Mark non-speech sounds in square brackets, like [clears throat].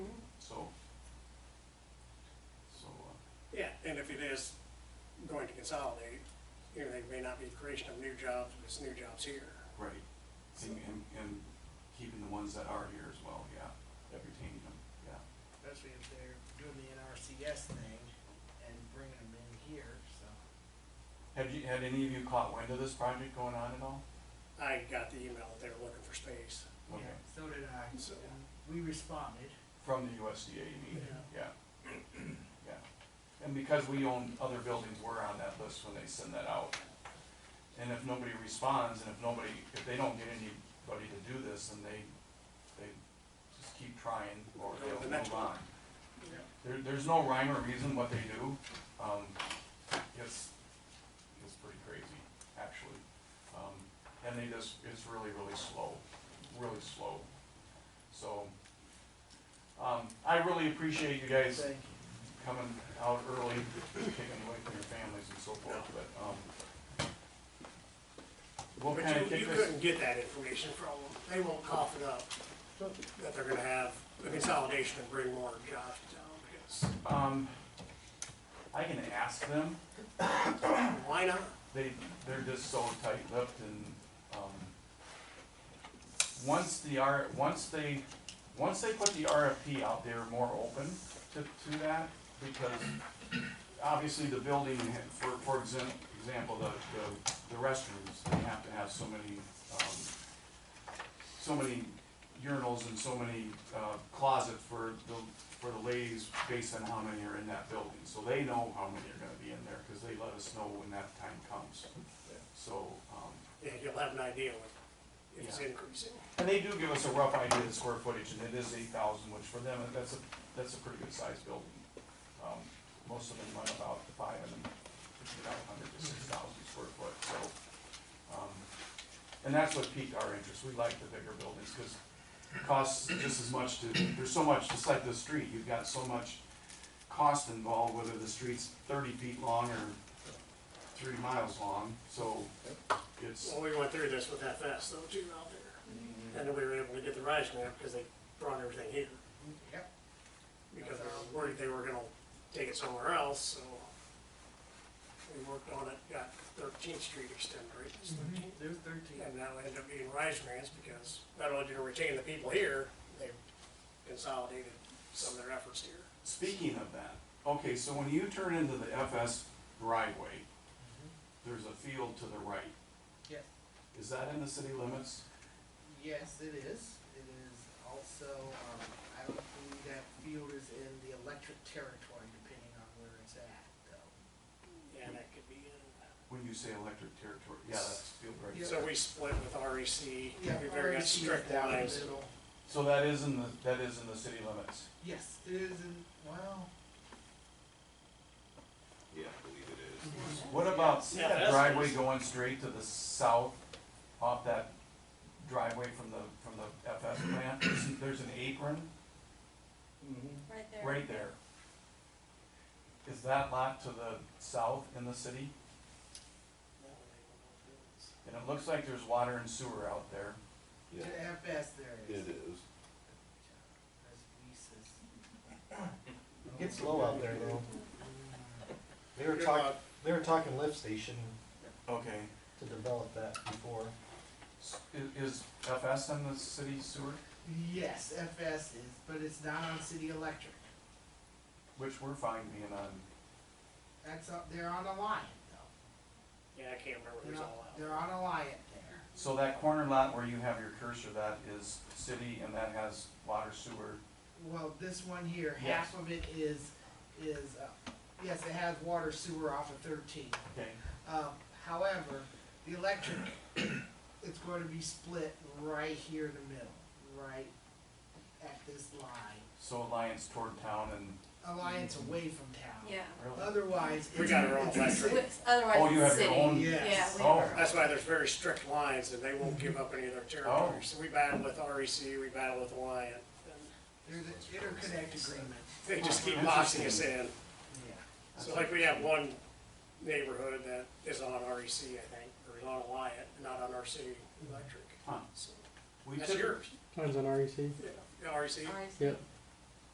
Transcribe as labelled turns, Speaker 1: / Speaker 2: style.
Speaker 1: uh,
Speaker 2: if it is going to consolidate, you know, there may not be the creation of new jobs, but it's new jobs here.
Speaker 1: Right, and, and, and keeping the ones that are here as well, yeah, retaining them, yeah.
Speaker 3: especially if they're doing the NRCS thing and bringing them in here, so.
Speaker 1: Have you, had any of you caught wind of this project going on at all?
Speaker 2: I got the email that they were looking for space.
Speaker 1: Okay.
Speaker 3: Yeah, So did I,
Speaker 2: So-
Speaker 3: and we responded.
Speaker 1: From the USDA, you mean, yeah, [clears throat] yeah. And because we own other buildings, we're on that list when they send that out. And if nobody responds, and if nobody, if they don't get anybody to do this, then they, they just keep trying, or
Speaker 2: Go to
Speaker 1: they'll
Speaker 2: the next
Speaker 1: move on.
Speaker 2: one.
Speaker 1: There, there's no rhyme or reason what they do, um, it's, it's pretty crazy, actually. Um, and they just, it's really, really slow, really slow, so. Um, I really appreciate you guys
Speaker 3: Thank you.
Speaker 1: coming out early, taking away from your families and so forth, but, um, we'll
Speaker 2: But
Speaker 1: kinda
Speaker 2: you, you
Speaker 1: kick this,
Speaker 2: couldn't get that information from them. They won't cough it up, that they're gonna have a consolidation and bring more jobs down,
Speaker 1: um, I can ask them,
Speaker 2: because why not?
Speaker 1: they, they're just so tight-lipped and, um, once the R, once they, once they put the RFP out, they're more open to, to that, because obviously the building, ha- for, for exam- example, the, the, the restrooms, they have to have so many, um, so many urinals and so many, uh, closets for the, for the ladies based on how many are in that building. So they know how many are gonna be in there, cause they let us know when that time comes. So, um,
Speaker 2: Yeah, you'll have an idea when- if it's
Speaker 1: Yeah.
Speaker 2: increasing.
Speaker 1: and they do give us a rough idea of the square footage, and it is eight thousand, which for them, that's a, that's a pretty good sized building. Um, most of them run about five and, about hundred to six thousand square foot, so. um, And that's what piqued our interest, we like the bigger buildings, cause it costs just as much to, there's so much, just like the street, you've got so much cost involved, whether the street's thirty feet long or three miles long, so it's,
Speaker 2: Well, we went through this with FS though too out there. And then we were able to get the rise grant because they brought everything here.
Speaker 3: Yep.
Speaker 2: Because they were worried they were gonna take it somewhere else, so. We worked on it, got Thirteenth Street extended, right? It's 13th.
Speaker 3: There's thirteen.
Speaker 2: And that'll end up being rise grants because not only did we retain the people here, they consolidated some of their efforts here.
Speaker 1: Speaking of that, okay, so when you turn into the FS driveway, there's a field to the right.
Speaker 3: Yes,
Speaker 1: Is that in the city limits?
Speaker 3: yes, it is. It is also, um, I don't believe that field is in the electric territory, depending on where it's at, though.
Speaker 2: Yeah, that could be in.
Speaker 1: When you say electric territory, yeah, that's field right there.
Speaker 2: So we split with REC, we very
Speaker 3: already
Speaker 2: got
Speaker 3: seen
Speaker 2: strict
Speaker 3: E down the
Speaker 2: lines.
Speaker 3: middle.
Speaker 1: So that is in the, that is in the city limits?
Speaker 3: Yes, it is in, wow.
Speaker 1: Yeah, I believe it is. What about, see that driveway going straight to the south off that driveway from the, from the FS plant? There's- There's an apron
Speaker 4: Right there.
Speaker 1: right there. Is that lot to the south in the city? And it looks like there's water and sewer out there.
Speaker 3: To
Speaker 5: Yeah,
Speaker 3: FS there
Speaker 5: it
Speaker 3: is.
Speaker 5: is.
Speaker 3: That's Lisa's.
Speaker 6: It's low out there though.
Speaker 3: mm,
Speaker 6: They were
Speaker 2: You're
Speaker 6: talking,
Speaker 2: not-
Speaker 6: they were talking lift station
Speaker 1: Okay.
Speaker 6: to develop that before.
Speaker 1: Is FS in the city sewer,
Speaker 3: Yes, FS is, but it's not on City Electric.
Speaker 1: which we're fine being on?
Speaker 3: That's up, they're on Alliant though.
Speaker 2: Yeah, I can't remember
Speaker 3: They're
Speaker 2: who's
Speaker 3: on,
Speaker 2: all out.
Speaker 3: they're on Alliant there.
Speaker 1: So that corner lot where you have your cursor, that is city and that has water sewer.
Speaker 3: Well, this one here,
Speaker 1: Yes.
Speaker 3: half of it is, is, uh, yes, it has water sewer off of thirteen.
Speaker 1: Okay.
Speaker 3: Um, however, the electric, [coughs] it's going to be split right here in the middle, right at this line.
Speaker 1: So Alliance toward town and,
Speaker 3: Alliant's away from town.
Speaker 4: Yeah.
Speaker 1: really?
Speaker 3: Otherwise,
Speaker 2: We
Speaker 3: it's,
Speaker 2: got our own
Speaker 3: it's a
Speaker 2: electric.
Speaker 3: city.
Speaker 4: With- Otherwise,
Speaker 1: Oh, you
Speaker 4: it's
Speaker 1: have your
Speaker 4: city.
Speaker 1: own-
Speaker 4: Yeah.
Speaker 3: Yes.
Speaker 4: we
Speaker 1: Oh.
Speaker 4: have our
Speaker 2: That's
Speaker 4: own.
Speaker 2: why there's very strict lines and they won't give up any of their territory. So we battle with REC, we battle with Alliant. and
Speaker 3: There's an interconnect agreement,
Speaker 2: They just keep boxing us in.
Speaker 3: yeah.
Speaker 2: So like we have one neighborhood that is on REC, I think, or is on Alliant, not on RC Electric.
Speaker 1: Huh.
Speaker 2: So
Speaker 1: We
Speaker 2: That's
Speaker 1: typ-
Speaker 2: yours.
Speaker 7: Mine's on E REC.
Speaker 2: Yeah, E REC.
Speaker 1: Oh.
Speaker 4: Ours.
Speaker 7: Yep.